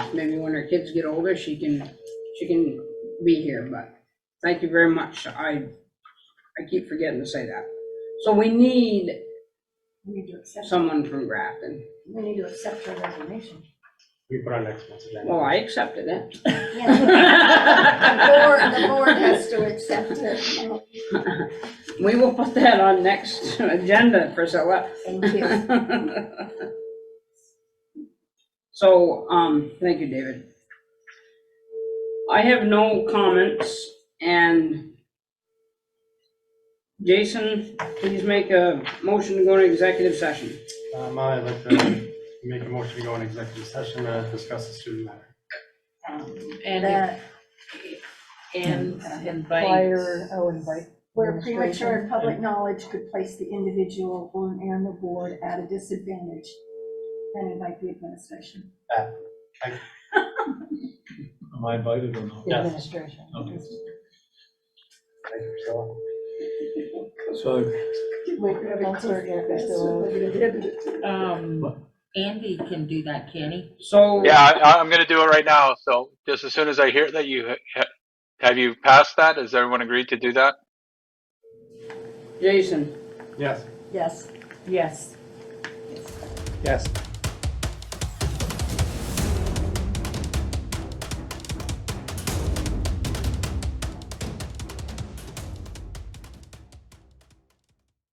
maybe when her kids get older, she can, she can be here, but thank you very much. I, I keep forgetting to say that. So we need We need to accept, someone from Grafton. we need to accept her resignation. We put our next month's agenda. Well, I accepted it. The board, the board has to accept it. We will put that on next agenda, Priscilla. Thank you. So, um, thank you, David. I have no comments and Jason, please make a motion to go to executive session. Um, I'd like to make a motion to go in executive session to discuss the student matter. And, That and invite, Fire, oh, invite. Where premature administration. and public knowledge could place the individual or- and the board at a disadvantage, and invite the administration. Am I invited or not? The Yes. Administration. Okay. Thank you, Priscilla. So Wait, Counselor Gaffney's still out. um, Andy can do that, can he? So, Yeah, I, I'm gonna do it right now. So just as soon as I hear that you, ha- ha- have you passed that? Has everyone agreed to do that? Jason, Yes, Yes. Yes. yes.